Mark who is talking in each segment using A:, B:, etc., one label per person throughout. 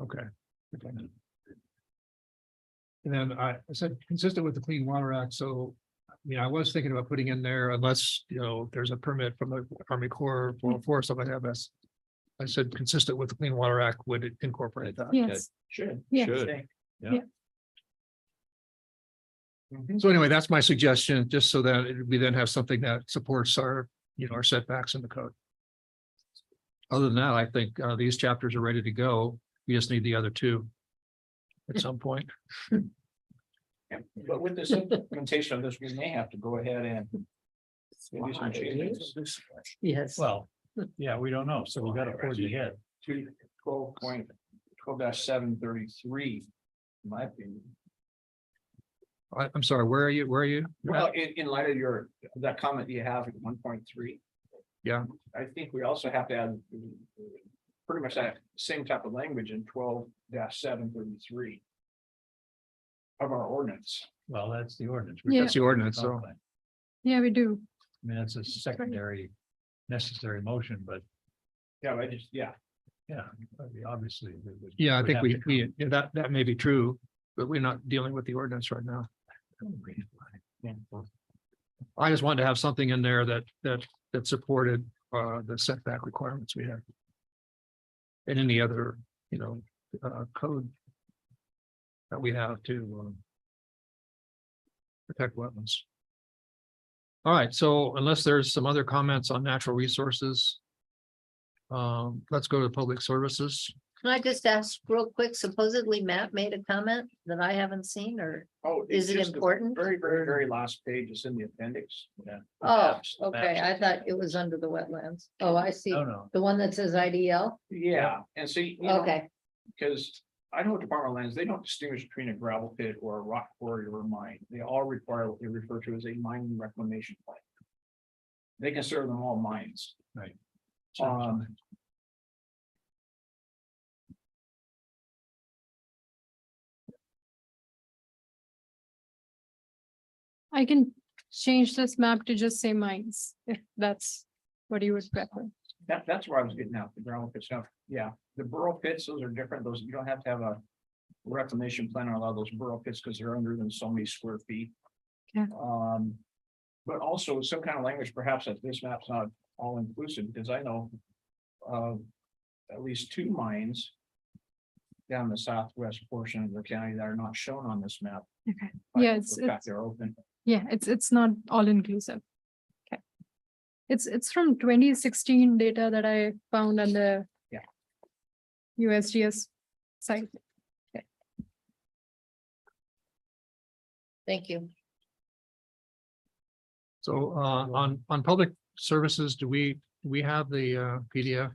A: Okay. Okay. And then I I said consistent with the Clean Water Act, so, you know, I was thinking about putting in there unless, you know, there's a permit from the Army Corps or for something like that, but. I said consistent with the Clean Water Act would it incorporate that.
B: Yes,
C: Should.
B: Yes.
C: Should.
A: So anyway, that's my suggestion, just so that it- we then have something that supports our, you know, our setbacks in the code. Other than that, I think uh these chapters are ready to go. We just need the other two. At some point.
C: Yeah. But with this implementation of this, we may have to go ahead and. maybe some changes.
B: yes.
D: Well, yeah, we don't know, so we gotta forge ahead.
C: To twelve point, twelve dash seven thirty-three, in my opinion.
A: I I'm sorry, where are you? Where are you?
C: Well, in, in light of your, that comment you have at one point three.
A: Yeah.
C: I think we also have to add. uh, Pretty much that same type of language in twelve seven thirty-three. Of our ordinance.
D: Well, that's the ordinance.
B: Yeah.
A: That's the ordinance,
D: I
A: so.
D: mean,
B: Yeah, we do.
D: that's a secondary necessary motion, but
C: Yeah, I just, yeah,
D: yeah, obviously. we would-
A: Yeah, I
D: would
A: think
D: have
A: we,
D: to
A: we, yeah, that, that may be true, but we're not dealing with the ordinance right now. I just wanted to have something in there that, that, that supported, uh, the setback requirements we have. And any other, you know, uh, code. That we have to, um. Protect wetlands. All right, so unless there's some other comments on natural resources. Um, let's go to public services.
E: Can I just ask real quick, supposedly Matt made a comment that I haven't seen, or
C: oh. it's
E: is it
C: just the
E: important?
C: Very, very, very last page is in the appendix. Yeah.
E: Oh,
C: Maps, maps.
E: okay, I thought it was under the wetlands. Oh, I see.
D: No, no,
E: The one that says IDL?
C: Yeah, and see, you know,
E: Okay,
C: because Idaho Department of Lands, they don't distinguish between a gravel pit or a rock quarry or a mine. They all require what they refer to as a mining reclamation plan. They consider them all mines.
D: Right.
C: Um.
B: I can change this map to just say mines, if that's what you would prefer.
C: That, that's where I was getting out, the gravel pit stuff, yeah, the burrow pits, those are different, those, you don't have to have a. Reclamation plan on a lot of those burrow pits, because they're under than so many square feet.
B: Okay.
C: Um. But also some kind of language perhaps that this map's not all inclusive, because I know. Of at least two mines. Down the southwest portion of the county that are not shown on this map.
B: Okay.
C: but
B: Yeah, it's-
C: the fact
B: it's-
C: They're open,
B: Yeah, it's, it's not all inclusive. Okay. It's, it's from twenty sixteen data that I found on the.
C: Yeah.
B: USGS site.
E: thank you.
A: So uh on on public services, do we, do we have the uh PDF?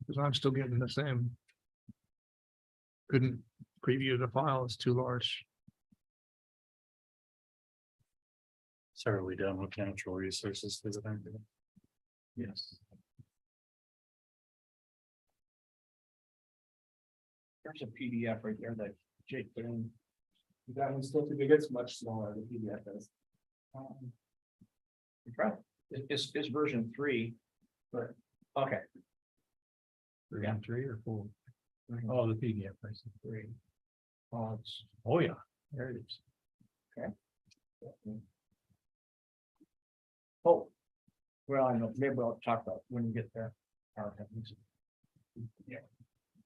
A: Because I'm still getting the same. Couldn't preview the file, it's too large.
D: so are we done with natural resources? for the time being? Yes.
C: there's a PDF right there that Jake put in.
F: That one's still too big, it's much smaller, the PDF is.
C: Um, it's right. It- It's, it's version three. Right. Okay.
D: Version Three or four? Oh, the PDF, I see.
C: Three. Oh, it's-
D: Oh, yeah, there it is.
C: Oh. Well, I know, maybe I'll talk about when we get there. Our companies.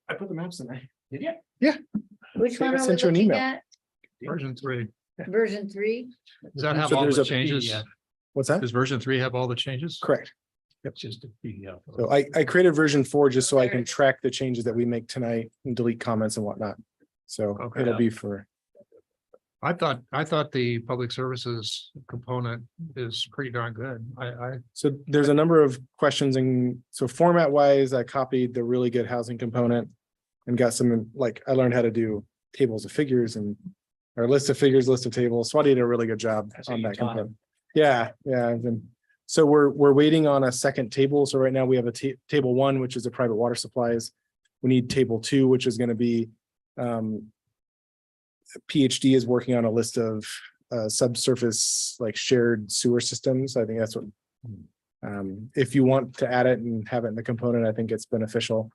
F: I put the maps in there.
C: Did you?
E: Which
F: think I
E: one are we
F: sent you an
E: looking
F: email.
E: at?
A: Version three,
E: Version three?
A: does that have
F: So
A: all
F: there's
A: the
F: a
A: changes?
D: PDF.
F: What's that?
A: Does version three have all the changes?
F: Correct.
D: It's just a PDF.
F: So I, I created version four just so I can track the changes that we make tonight and delete comments and whatnot. So
A: Okay.
F: it'll be for,
A: I thought, I thought the public services component is pretty darn good. I I
F: so there's a number of questions and so format wise, I copied the really good housing component. And got some, like, I learned how to do tables of figures and, or list of figures, list of tables. So I did a really good job
C: That's what
F: on
C: you
F: that
C: taught him.
F: component. Yeah, yeah, I've been- so we're, we're waiting on a second table. So right now we have a ta- table one, which is the private water supplies. We need table two, which is gonna be, um. PhD is working on a list of, uh, subsurface, like shared sewer systems. I think that's what. Um, if you want to add it and have it in the component, I think it's beneficial.